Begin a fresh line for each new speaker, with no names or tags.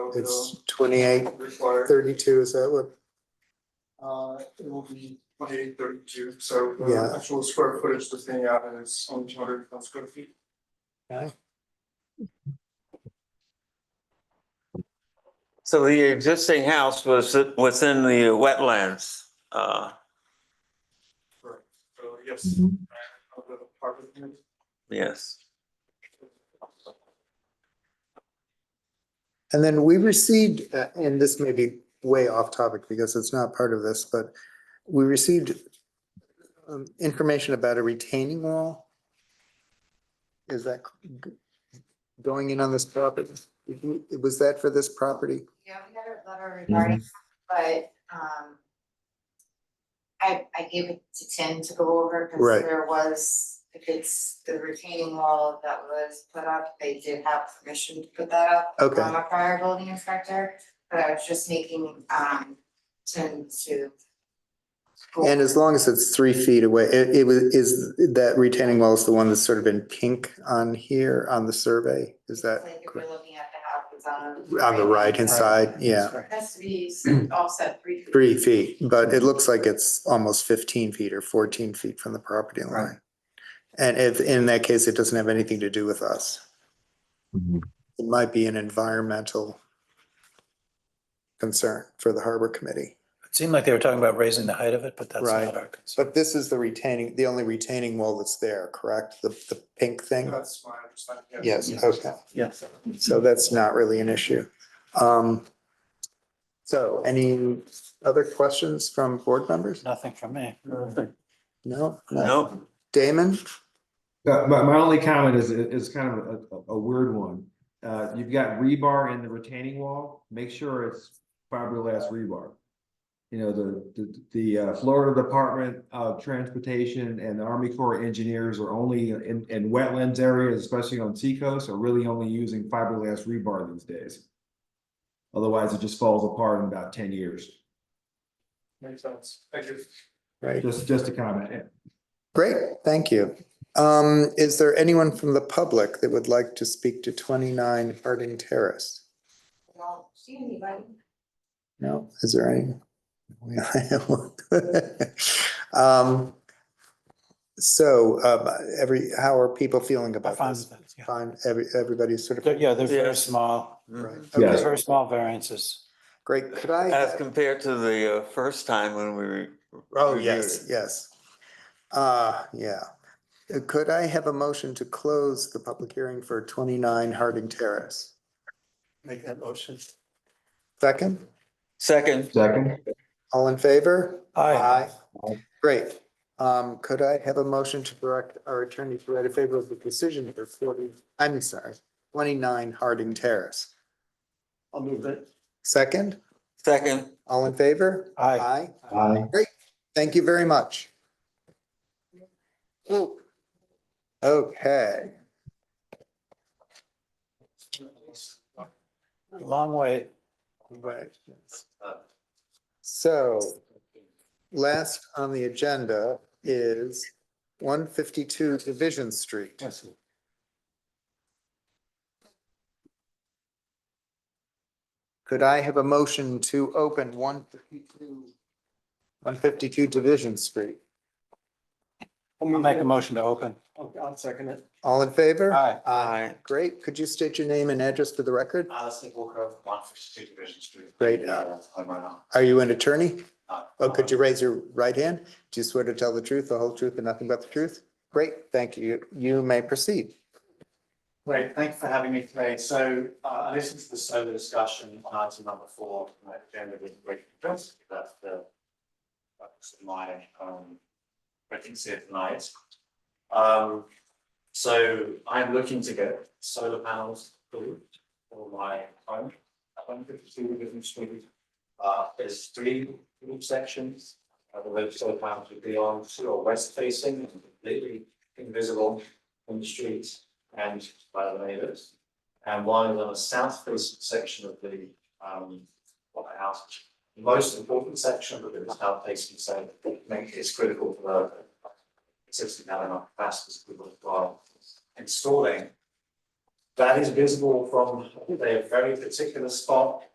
It's
It's
twenty-eight,
required,
thirty-two, is that what,
uh, it will be twenty-eight thirty-two, so the
Yeah.
actual square footage the thing out is only two hundred square feet.
So the existing house was within the wetlands. Uh,
Correct. So yes.
Mm-hmm.
Of the apartment.
yes.
and then we received, uh, and this may be way off topic because it's not part of this, but we received um, information about a retaining wall. Is that g- going in on this property? Was that for this property?
Yeah, we got a letter
Mm-hmm.
regarding, that, but, um, I, I gave it to Tim to go over,
Right.
because there was, if it's the retaining wall that was put up, they did have permission to put that up.
Okay.
From a prior building inspector, but I was just making, um, Tim to. go
And as long as it's three feet away, it, it was, is that retaining wall is the one that's sort of in pink on here on the survey? Is
over,
that
Like if
correct?
you're looking at the house, it's on.
on the right-hand side? Yeah.
Has to be offset three feet.
three feet, but it looks like it's almost fifteen feet or fourteen feet from the property line. And if, in that case, it doesn't have anything to do with us. It might be an environmental concern for the harbor committee.
It seemed like they were talking about raising the height of it, but that's
Right.
not our concern.
But this is the retaining, the only retaining wall that's there, correct? The, the pink thing?
That's my understanding.
Yes, okay.
Yes.
So that's not really an issue. Um, so any other questions from board members?
Nothing from me.
Uh,
No?
No,
Damon?
Uh, my, my only comment is, is kind of a, a weird one. Uh, you've got rebar in the retaining wall, make sure it's fiberglass rebar. You know, the, the, the uh, Florida Department of Transportation and the Army Corps of Engineers are only in, in wetlands areas, especially on seacoast, are really only using fiberglass rebar these days. Otherwise, it just falls apart in about ten years.
Makes sense. Thank you.
Right.
Just, just a comment.
Great, thank you. Um, is there anyone from the public that would like to speak to twenty-nine Harding Terrace?
Don't see anybody.
No, is there any? Um, so, um, every, how are people feeling
I
about
find
this?
that, yeah.
Fine, every, everybody's sort
They're-
of.
Yeah, they're very
Yes.
small,
Right,
they're
okay,
very small variances.
great, could
Mm. as
I,
compared to the uh, first time when we. re-
oh,
reviewed
yes,
it.
yes. Uh, yeah. Uh, Could I have a motion to close the public hearing for twenty-nine Harding Terrace?
Make that motion.
Second,
Second,
Second?
all in favor?
Aye.
Great. Um, could I have a motion to direct our attorney to write a favorable decision for forty, I'm sorry, twenty-nine Harding Terrace?
I'll move it.
Second,
second.
all in favor?
Aye.
Aye.
Aye.
Great. Thank you very much. Okay,
Long way.
right. So last on the agenda is one fifty-two Division Street. Could I have a motion to open one fifty-two? One fifty-two Division Street.
I'll make a motion to open.
I'll second it.
All in favor?
Aye.
Aye.
Great. Could you state your name and address for the record?
Alice Walker, one fifty two Division Street.
Great.
Yeah, I'm right Uh, now.
Are you an attorney?
No.
Oh, could you raise your right hand? Do you swear to tell the truth, the whole truth, and nothing but the truth? Great, thank you. You may proceed.
Great, thanks for having me today. So uh, I listened to the solar discussion on item number four, my agenda with great interest. That's the that's my um ratings here tonight. Um, so I'm looking to get solar panels approved for my home at one fifty two Livingston Street. Uh, there's three roof sections. Uh, the red solar panels would be on sort of west facing, and completely invisible from the street and by the neighbours. And one is on a south facing section of the um of the house, which is the most important section, but it is south facing, so make it's critical for the sixty gallon capacity we will require installing That is visible from a very particular spot